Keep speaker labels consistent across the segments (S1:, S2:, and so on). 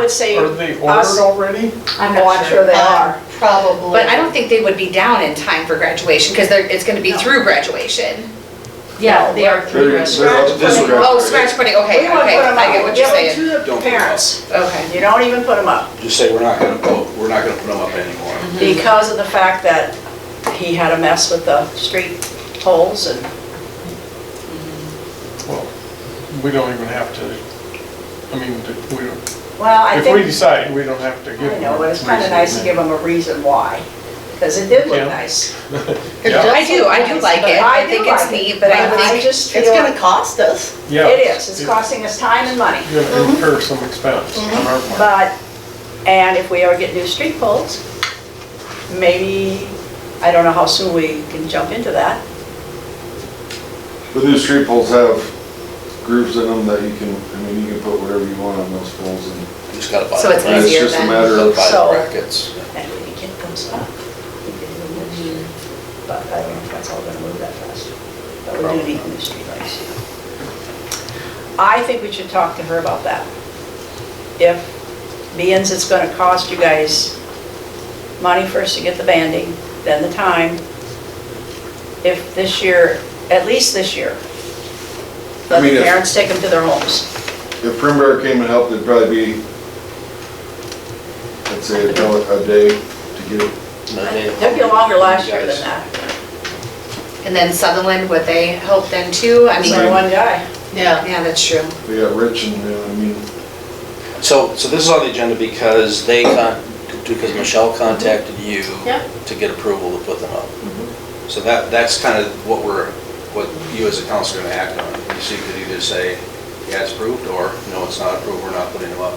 S1: would say
S2: Are they
S1: us-
S2: ordered already?
S3: I'm
S1: Oh,
S3: not
S1: I'm sure
S3: sure.
S1: they
S4: Um,
S1: are.
S4: Probably.
S5: But I don't think they would be down in time for graduation, because they're, it's gonna be through graduation.
S3: Yeah, they are
S6: They're
S3: through
S6: gonna-
S3: this.
S6: they're out to disregard.
S5: Oh, scratch putting, okay,
S1: We wouldn't
S5: okay,
S1: put 'em
S5: I get
S1: up.
S5: what you're saying.
S1: Give them to
S6: Don't
S1: the
S6: put 'em
S1: parents.
S5: Okay.
S1: You don't even put them up
S2: Mm-hmm.
S6: Just say, we're not gonna put, we're not gonna put them up anymore.
S1: because of the fact that he had a mess with the street poles and
S2: Well, we don't even have to, I mean, d- we don't,
S1: Well, I
S2: if we
S1: think,
S2: decide, we don't have to give
S1: I
S2: them.
S1: know, but it's kind of
S2: reason.
S1: nice to give them a reason why, because it did look
S2: Yeah.
S1: nice.
S2: Yeah,
S5: I do, Oh, I do like
S1: But
S5: it,
S1: I
S5: I
S1: do
S5: think
S1: like
S5: it's
S1: it,
S5: neat, but
S1: but I
S5: I think,
S1: just
S4: It's
S1: feel,
S4: gonna
S1: it
S4: cost us.
S2: yeah.
S1: is, it's Mm-hmm. costing us time and money,
S2: You're gonna incur some expense
S1: Mm-hmm.
S2: on our part.
S1: but, and if we ever get new street poles, maybe, I don't know how soon we can jump into that.
S7: The new street poles have grooves in them that you can, I mean, you can put whatever you want on those poles and
S6: You Just gotta buy.
S5: So
S6: the
S5: it's
S6: brackets.
S7: it's
S5: easier
S7: just a
S5: then.
S7: matter of,
S6: Buy
S1: So-
S6: the brackets.
S1: And we can get those up. But I don't know if that's all gonna move that fast. But we do need new streetlights. I think we should talk to her about that. If, being it's gonna cost you guys money first to get the banding, then the time. If this year, at least this year, let
S7: I mean,
S1: the
S7: if-
S1: parents take them to their homes.
S7: if Primgar came and helped, it'd probably be, I'd say a dollar a day to get it.
S1: Took you longer last year than that.
S5: and then Sutherland, would they help then too? I
S1: It's
S5: mean,
S1: only one guy.
S4: Yeah.
S5: yeah, that's true.
S7: They got rich and, you know, I mean,
S6: So, so this is on the agenda because they, con- because Michelle contacted you
S4: Yeah.
S6: to get approval to put them up. So that, that's kind of what we're, what you as a council are going to act on. You see, you could either say, yeah, it's approved, or no, it's not approved, we're not putting them up.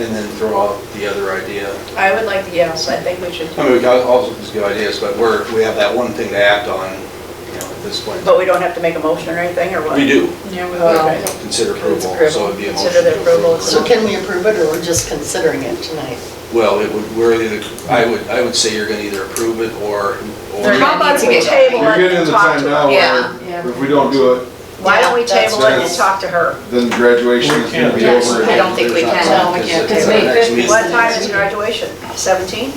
S6: And then throw out the other idea.
S1: I would like to, yes, I think we should,
S6: I mean, we got all these good ideas, but we're, we have that one thing to act on, you know, at this point.
S1: but we don't have to make a motion or anything, or what?
S6: We do,
S1: Yeah, we
S6: uh,
S1: will.
S6: consider approval, so it'd be a motion.
S1: Consider the
S6: to approve.
S1: approval.
S4: So can we approve it, or we're just considering it tonight?
S6: Well, it would, we're either, I would, I would say you're gonna either approve it or,
S5: They're
S6: or
S5: not-
S1: How about if we
S5: Needs to
S1: table
S7: you're
S1: it
S7: getting
S1: and
S7: to the
S1: talk
S7: time
S1: to
S7: now
S1: her?
S5: Yeah.
S7: where if we don't do it,
S1: Why don't we table it and
S7: That's-
S1: talk to her?
S7: then graduation is gonna be
S2: We can't.
S7: over.
S5: I don't think we
S6: There's not-
S5: can.
S4: No, we can't.
S6: Because
S3: It's May
S6: our next
S3: 5th.
S6: meeting-
S1: What time is graduation? 17?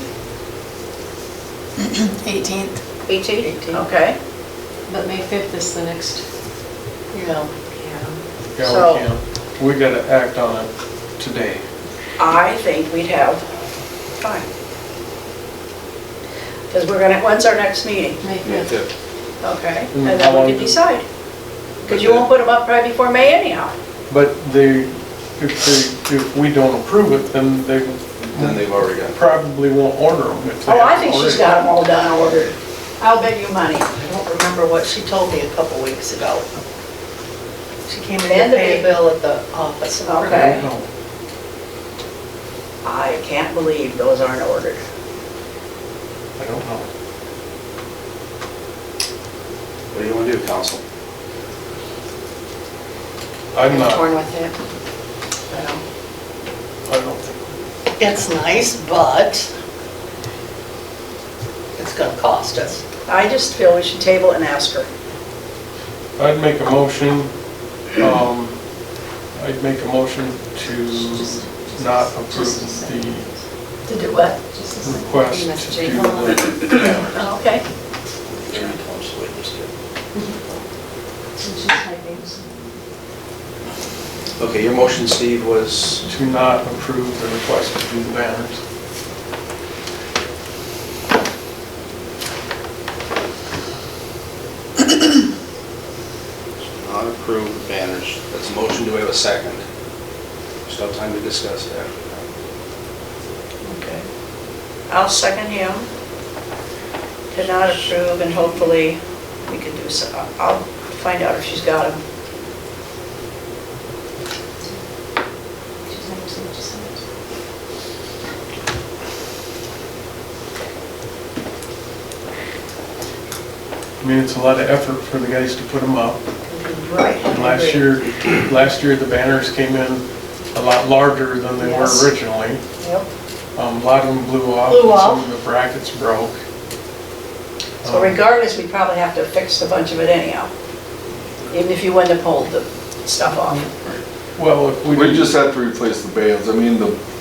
S8: 18th,
S1: 18?
S4: Eighteen.
S1: Okay.
S3: But May 5th is the next.
S4: Yeah.
S2: Yeah,
S1: so-
S2: we can. We gotta act on it today.
S1: I think we'd have time. Because we're gonna, when's our next meeting?
S3: May
S6: Yeah,
S3: 5th.
S6: fifth.
S1: Okay.
S2: Mm,
S1: And
S2: how
S1: then
S2: long
S1: we
S2: do-
S1: can decide. Because you won't put them up right before May anyhow.
S2: But they, if they, if we don't approve it, then they
S6: Then they've already got.
S2: probably won't order them if they.
S1: Oh, I
S2: haven't
S1: think she's
S2: already.
S1: got them all done ordered. I'll bet you money.
S4: I don't remember what she told me a couple weeks ago. She came in
S1: Then
S4: to
S1: the
S4: pay a
S1: big-
S4: bill at the office.
S1: Okay.
S2: I don't know.
S1: I can't believe those aren't ordered.
S2: I don't know.
S6: What do you wanna do, council?
S2: I'm not,
S5: Torn with it.
S2: I don't think,
S4: It's nice, but it's gonna cost us.
S1: I just feel we should table it and ask her.
S2: I'd make a motion, um, I'd make a motion to not approve the
S1: To do what?
S2: request to do the
S1: Okay.
S6: Okay, your motion, Steve, was,
S2: to not approve the request to do the banners.
S6: not approve the banners. That's a motion, do we have a second? Still have time to discuss that.
S1: Okay. I'll second him to not approve and hopefully we can do so. I'll find out if she's got him.
S2: I mean, it's a lot of effort for the guys to put them up.
S1: Right.
S2: And last year, last year, the banners came in a lot larger than they were
S1: Yes.
S2: originally.
S1: Yep.
S2: Um, A lot of them blew off,
S4: Blew
S2: and
S4: off.
S2: some of the brackets broke. Um,
S1: So regardless, we probably have to fix a bunch of it anyhow. Even if you wouldn't have pulled the stuff off.
S2: Well, if we
S7: We
S2: didn't,
S7: just have to replace the bands. I mean, the,